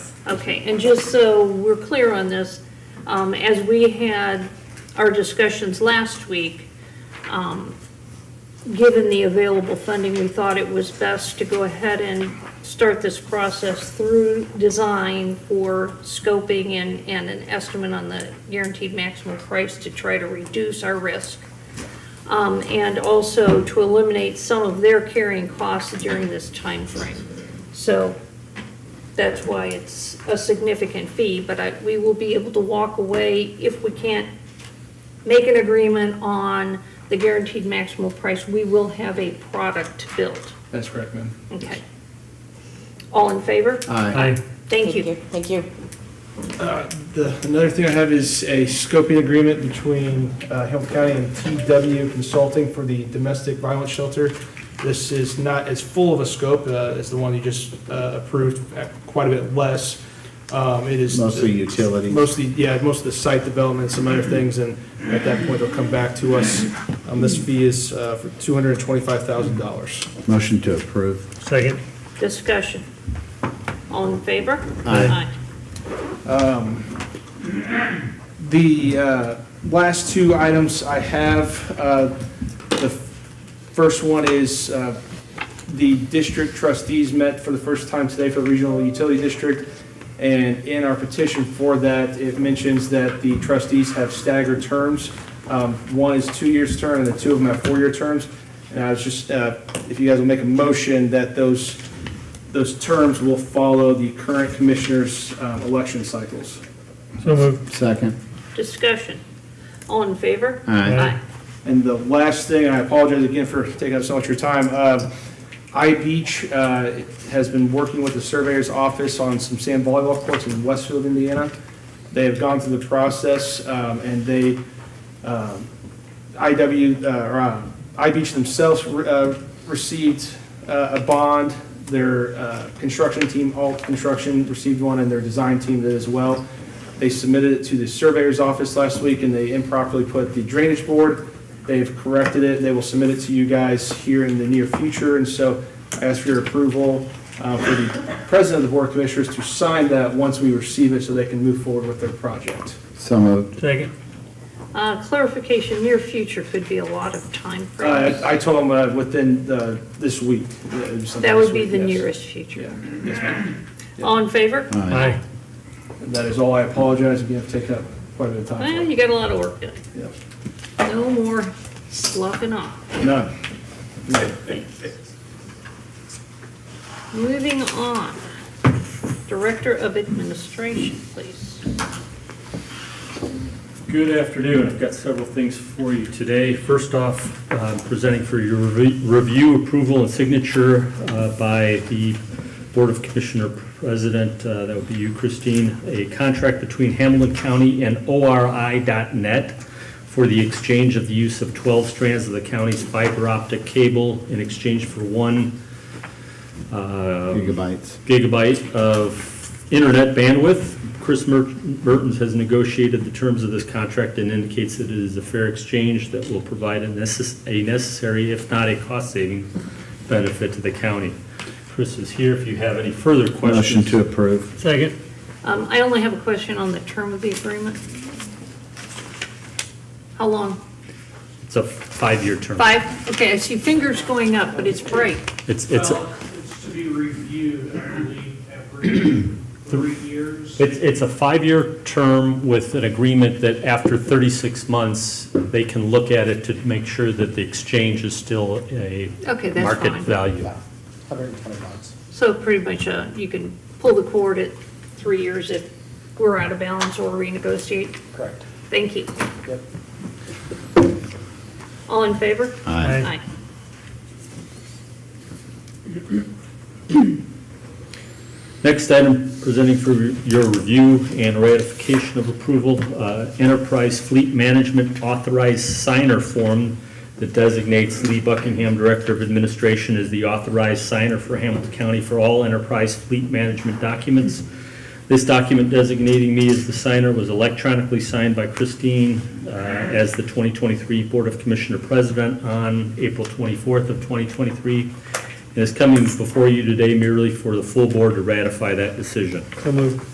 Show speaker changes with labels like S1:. S1: Okay, and just so we're clear on this, um, as we had our discussions last week, um, given the available funding, we thought it was best to go ahead and start this process through design for scoping and, and an estimate on the guaranteed maximum price to try to reduce our risk. Um, and also to eliminate some of their carrying costs during this time frame. So that's why it's a significant fee, but I, we will be able to walk away if we can't make an agreement on the guaranteed maximum price, we will have a product built,
S2: That's correct, ma'am.
S1: okay? All in favor?
S2: Aye.
S1: Thank you.
S3: Thank you.
S4: The, another thing I have is a scoping agreement between uh, Hamilton County and TW Consulting for the domestic violence shelter. This is not as full of a scope uh, as the one you just uh, approved, uh, quite a bit less. Um, It is.
S5: Mostly utilities.
S4: Mostly, yeah, most of the site development, some other things, and at that point, they'll come back to us. Um, This fee is uh, for $225,000.
S5: Motion to approve.
S6: Second.
S1: Discussion. All in favor?
S5: Aye.
S4: The uh, last two items I have, uh, the first one is uh, the district trustees met for the first time today for the Regional Utility District, and in our petition for that, it mentions that the trustees have staggered terms. Um, One is two years' term, and the two of them have four-year terms. And I was just, uh, if you guys will make a motion that those, those terms will follow the current commissioners' um, election cycles.
S6: So moved.
S5: Second.
S1: Discussion. All in favor?
S5: Aye.
S1: Aye.
S4: And the last thing, and I apologize again for taking up so much of your time, uh, iBeach uh, has been working with the surveyor's office on some sand volleyball courts in Westfield, Indiana. They have gone through the process, um, and they, um, IW, uh, or uh, iBeach themselves uh, received uh, a bond, their uh, construction team, Alt Construction, received one, and their design team did as well. They submitted it to the surveyor's office last week, and they improperly put the drainage board. They've corrected it, and they will submit it to you guys here in the near future, and so I ask for your approval uh, for the president of the board of commissioners to sign that once we receive it, so they can move forward with their project.
S5: So moved.
S6: Second.
S1: Uh, clarification, near future could be a lot of time frame.
S4: Uh, I told them uh, within uh, this week. uh, sometime
S1: That would
S4: this
S1: be
S4: week,
S1: the
S4: yes.
S1: nearest
S4: Yeah,
S1: future.
S4: yes, ma'am.
S1: All in favor?
S6: Aye.
S4: And That is all. I apologize again for taking up quite a bit
S1: Well,
S4: of time.
S1: you got a lot of work done.
S4: Yeah.
S1: No more sloughing off.
S4: No.
S1: Moving on, Director of Administration, please.
S6: Good afternoon. I've got several things for you today. First off, uh, presenting for your revi- review, approval, and signature uh, by the Board of Commissioner President, uh, that would be you, Christine, a contract between Hamilton County and ORI.net for the exchange of the use of 12 strands of the county's fiber optic cable in exchange for one uh,
S5: Gigabytes.
S6: gigabyte of internet bandwidth. Chris Mer- Mertens has negotiated the terms of this contract and indicates that it is a fair exchange that will provide a necess- a necessary, if not a cost-saving, benefit to the county. Chris is here if you have any further
S5: Motion
S6: questions.
S5: to approve.
S6: Second.
S1: Um, I only have a question on the term of the agreement. How long?
S6: It's a five-year term.
S1: Five? Okay, I see fingers going up, but it's bright.
S6: It's, it's,
S7: Well, it's to be reviewed, I believe, every three years.
S6: it's it's a five-year term with an agreement that after 36 months, they can look at it to make sure that the exchange is still a
S1: Okay, that's
S6: market
S1: fine.
S6: value.
S1: So pretty much, uh, you can pull the cord at three years if we're out of balance or renegotiate.
S4: Correct.
S1: Thank you.
S4: Yep.
S1: All in favor? Aye.
S5: Aye.
S6: Next item, presenting for your review and ratification of approval, uh, Enterprise Fleet Management Authorized Signer Form that designates Lee Buckingham, Director of Administration, as the authorized signer for Hamilton County for all enterprise fleet management documents. This document designating me as the signer was electronically signed by Christine uh, as the 2023 Board of Commissioner President on April 24th of 2023. And is coming before you today merely for the full board to ratify that decision.